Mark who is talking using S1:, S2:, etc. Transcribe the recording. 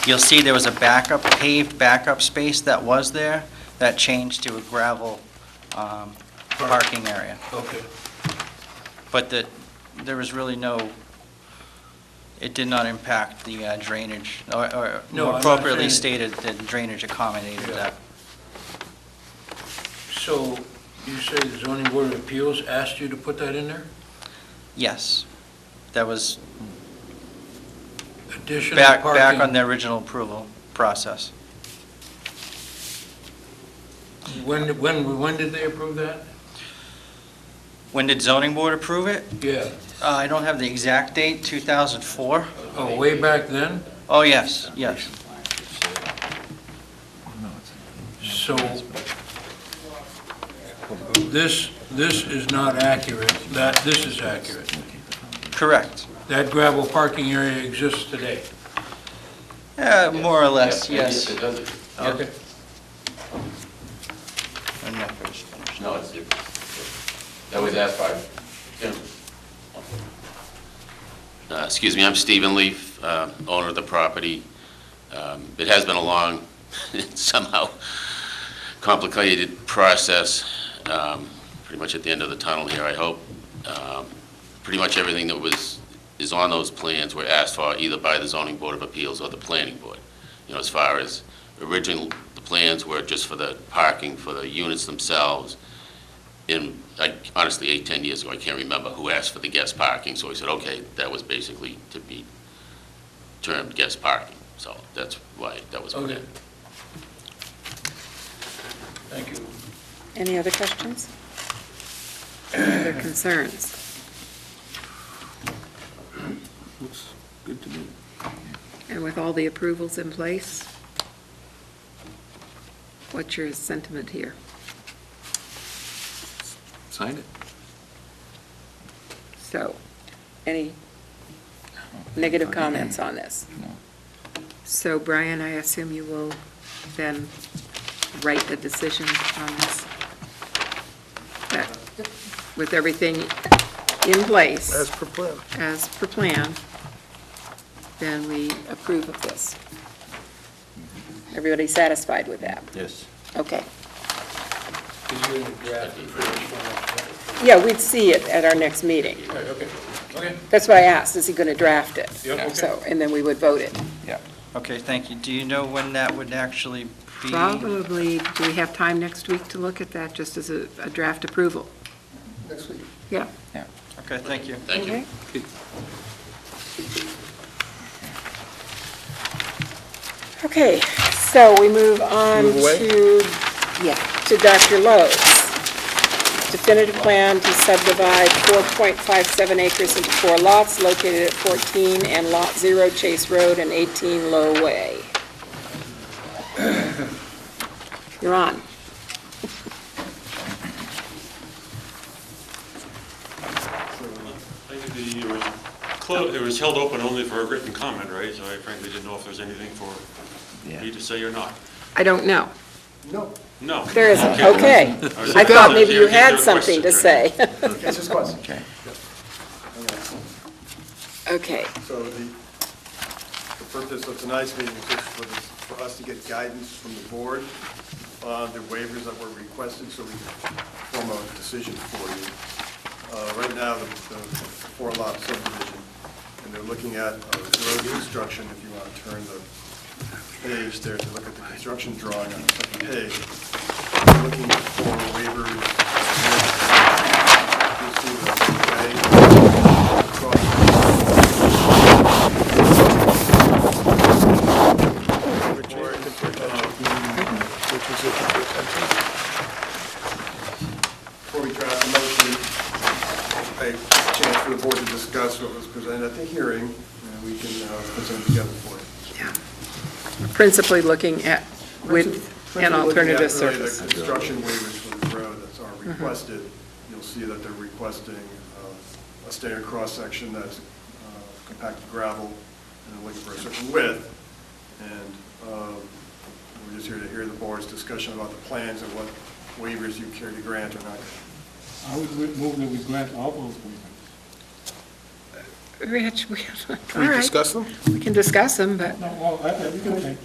S1: You'll see there was a backup, paved backup space that was there, that changed to a gravel um, parking area.
S2: Okay.
S1: But that, there was really no, it did not impact the uh, drainage, or- or
S2: No, I'm
S1: more
S2: not
S1: appropriately stated,
S2: saying
S1: that drainage accommodated
S2: Yeah.
S1: that.
S2: So you say the zoning board of appeals asked you to put that in there?
S1: Yes. That was
S2: Additional
S1: back,
S2: parking?
S1: back on the original approval process.
S2: When, when, when did they approve that?
S1: When did zoning board approve it?
S2: Yeah.
S1: Uh, I don't have the exact date, 2004?
S2: Oh, way back then?
S1: Oh, yes, yes.
S2: So this, this is not accurate, that, this is accurate.
S1: Correct.
S2: That gravel parking area exists today.
S1: Yeah, Uh, more or less,
S3: Yeah,
S1: yes.
S3: It does, it.
S1: Okay. I'm not finished.
S3: no, it's different. That was asked by Jim. Uh, Excuse me, I'm Stephen Leaf, uh, owner of the property. Um, It has been a long, somehow complicated process, um, pretty much at the end of the tunnel here, I hope. Um, Pretty much everything that was, is on those plans were asked for either by the zoning board of appeals or the planning board. You know, as far as original, the plans were just for the parking, for the units themselves. And I- honestly, eight, 10 years ago, I can't remember who asked for the guest parking, so I said, okay, that was basically to be termed guest parking. So that's why that was put
S2: Okay.
S3: in.
S2: Thank you.
S4: Any other questions? Any other concerns?
S5: Looks good to me.
S4: And with all the approvals in place, what's your sentiment here?
S5: Sign it.
S4: So, any negative comments on this?
S5: No.
S4: So Brian, I assume you will then write the decision on this? That- With everything in place? As per plan. As per plan, then we approve of this. Everybody satisfied with that?
S5: Yes.
S4: Okay.
S2: Is there any draft for this
S4: Yeah, we'd see it at our next meeting.
S2: one? Right, Okay, okay.
S4: That's why I asked, is he going to draft it?
S2: Yeah, okay.
S4: So, and then we would vote it.
S1: Okay, thank you. Do you know when that would actually be?
S4: Probably, do we have time next week to look at that, just as a a draft approval? Next week.
S1: Okay, thank you.
S4: Yeah.
S3: Thank you.
S4: Okay. Okay, so we move on to, yeah, to Dr. Lowe's. Definitive plan to subdivide 4.57 acres into four lots located at 14 and Lot 0 Chase Road and 18 Low Way. You're on.
S6: I think the- It was clo- it was held open only for a written comment, right? So I frankly didn't know if there's anything for me to say or not.
S4: I don't know.
S7: No,
S6: No.
S4: There isn't,
S6: Okay.
S4: okay.
S6: was-
S4: I thought maybe you
S6: Is there a
S4: had something to
S6: question?
S4: say.
S7: it's just question.
S5: Okay.
S4: Okay,
S7: So the, the purpose of tonight's meeting is just for, this- for us to get guidance from the board on the waivers that were requested, so we can form a decision for you. Uh, right now, the, the four lot subdivision, and they're looking at uh, road construction, if you want to turn the page there to look at the construction drawing on the second page. They're Looking for waivers. You'll see the way across Which Before we draft a motion, a chance for the board to discuss what was presented at the hearing, and we can uh, present together for it.
S4: yeah. Principally looking at with an
S7: Principally looking at
S4: alternative
S7: really the
S4: surface. Mm-hmm.
S7: Construction waivers for the road that's are requested, you'll see that they're requesting uh, a standard cross-section that's uh, compacted gravel, and they're looking for a certain width, and um, we're just here to hear the board's discussion about the plans and what waivers you care to grant or not.
S8: I would move that we grant all those waivers.
S4: Rich, we, all
S5: We
S4: right,
S5: discuss them?
S4: we can discuss them, but.
S8: No, well, I- I- okay.